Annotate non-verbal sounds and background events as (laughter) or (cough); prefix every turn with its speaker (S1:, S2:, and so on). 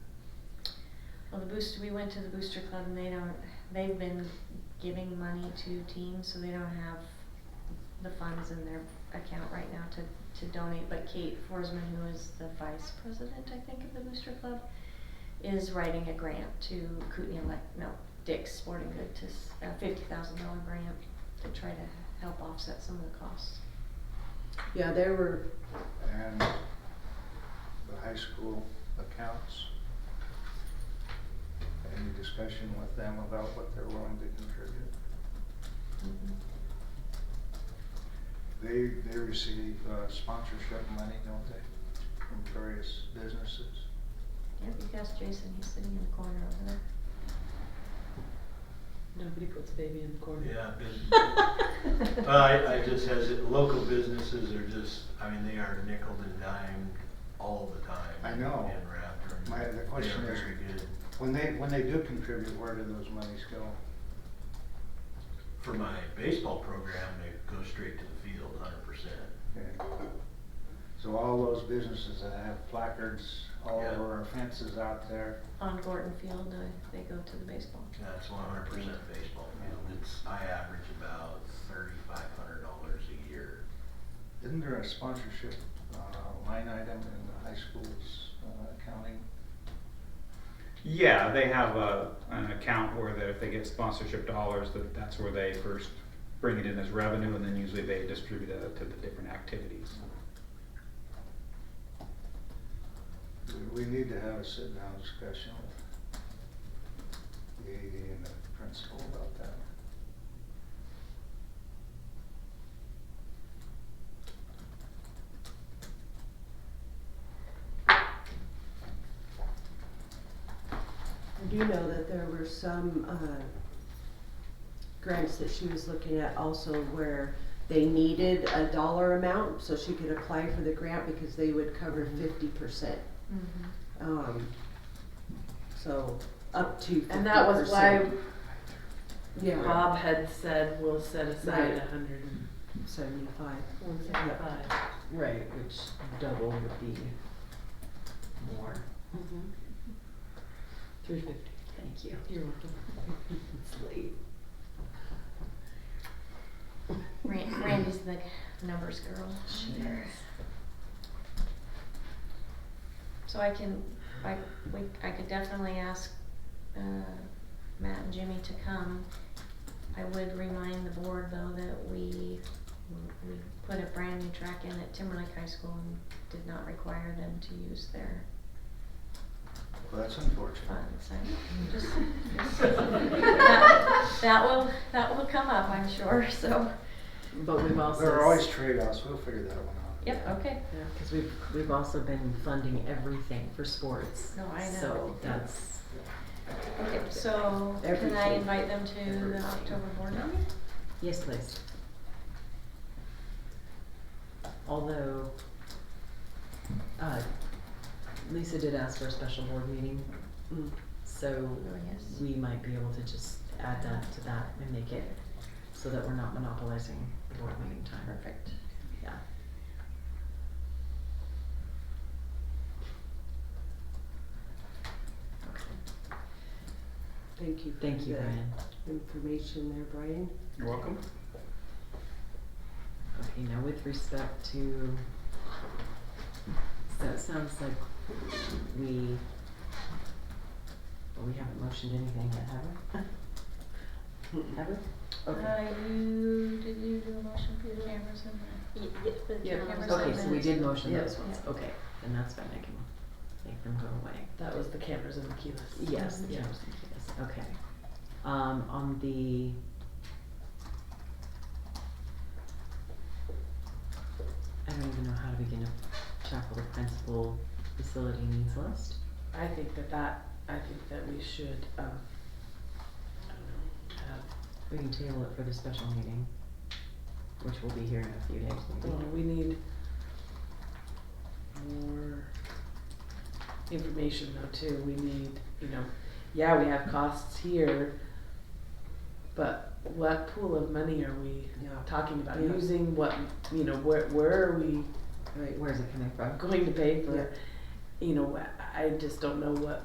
S1: booster, we went to the booster club and they don't, they've been giving money to teams, so they don't have the funds in their account right now to, to donate, but Kate Forsman, who is the vice president, I think, of the booster club, is writing a grant to Kootenai Elect, no, Dick's Sporting Good to, s- a fifty thousand dollar grant to try to help offset some of the costs.
S2: Yeah, there were,
S3: and the high school accounts. Any discussion with them about what they're willing to contribute?
S1: Mm-hmm.
S3: They, they receive uh, sponsorship money, don't they, from various businesses?
S1: Yep, you guys, Jason, he's sitting in the corner over there.
S2: nobody puts baby in the corner.
S4: Yeah,
S2: (laughs)
S4: bus- I, I just has it, local businesses are just, I mean, they are nickel and dime all the time.
S3: I know.
S4: In Raptor. and
S3: My- the
S4: they are
S3: question is-
S4: Very good
S3: When they, when they do contribute, where do those monies go?
S4: for my baseball program, they go straight to the field hundred percent.
S3: Okay. So all those businesses that have placards all
S4: Yeah.
S3: over our fences out there,
S1: On Gordon Field, uh, they go to the baseball.
S4: That's one hundred percent baseball field. It's, I average about thirty-five hundred dollars a year.
S3: isn't there a sponsorship uh, line item in the high school's uh, accounting?
S5: Yeah, they have a, an account where that if they get sponsorship dollars, that that's where they first bring it in as revenue, and then usually they distribute it to the different activities.
S3: We- We need to have a sit-down discussion with the AD and the principal about that.
S2: I do know that there were some, uh, grants that she was looking at also where they needed a dollar amount, so she could apply for the grant because they would cover fifty percent.
S1: Mm-hmm.
S2: Um, so, up to fifty percent.
S6: And that was why
S2: Yeah,
S6: Bob had said, we'll set aside
S2: Right.
S6: a hundred and
S2: seventy-five,
S6: one seventy-five.
S7: Right, which double would be more,
S6: Mm-hmm. Three fifty.
S7: thank you,
S6: You're welcome.
S7: (laughs) it's late.
S1: Ran- Randy's the numbers girl.
S7: Sure.
S1: So I can, I, we, I could definitely ask, uh, Matt and Jimmy to come. I would remind the board though that we, we put a brand new track in at Timberlake High School and did not require them to use their
S3: Well, that's unfortunate.
S1: funds. I just, (laughs) that, that will, that will come up, I'm sure, so.
S6: But we've also.
S3: There are always trade-offs, we'll figure that one out.
S1: Yep, okay.
S6: Yeah.
S7: Cause we've, we've also been funding everything for sports.
S1: No, I know.
S7: So that's,
S1: Okay, so can I
S2: Everything.
S1: invite them to the
S7: Everything.
S1: October board meeting?
S7: yes, please. Although, uh, Lisa did ask for a special board meeting,
S2: Mm.
S7: so
S1: Oh, yes.
S7: we might be able to just add that to that and make it so that we're not monopolizing the board meeting time.
S1: Perfect.
S7: Yeah.
S2: thank you for
S7: Thank you,
S2: the
S7: Brian.
S2: information there, Brian.
S5: You're welcome.
S7: Okay, now with respect to, so it sounds like we, well, we haven't motioned anything yet, have we? Have we? Okay.
S1: Uh, you, did you do a motion for the cameras and the?
S6: Yeah.
S1: cameras
S7: Okay,
S1: and
S7: so we
S1: the-
S7: did motion
S6: Yeah.
S7: those ones,
S1: Yeah.
S7: okay, then that's fine, I can make them go away.
S6: That was the cameras and the keyless.
S7: Yes, the
S6: Yeah.
S7: cameras and keyless, okay. Um, on the. I don't even know how to begin to tackle the principal facility needs list.
S6: I think that that, I think that we should, um, I don't know, have,
S7: We can table it for the special meeting, which will be here in a few days. maybe.
S6: well, we need more information though too. We need, you know, yeah, we have costs here, but what pool of money are we
S2: Yeah.
S6: talking about
S2: Yeah.
S6: using? What, you know, where, where are we
S7: Right, where's it coming from?
S6: going to pay for? You know, I I just don't know what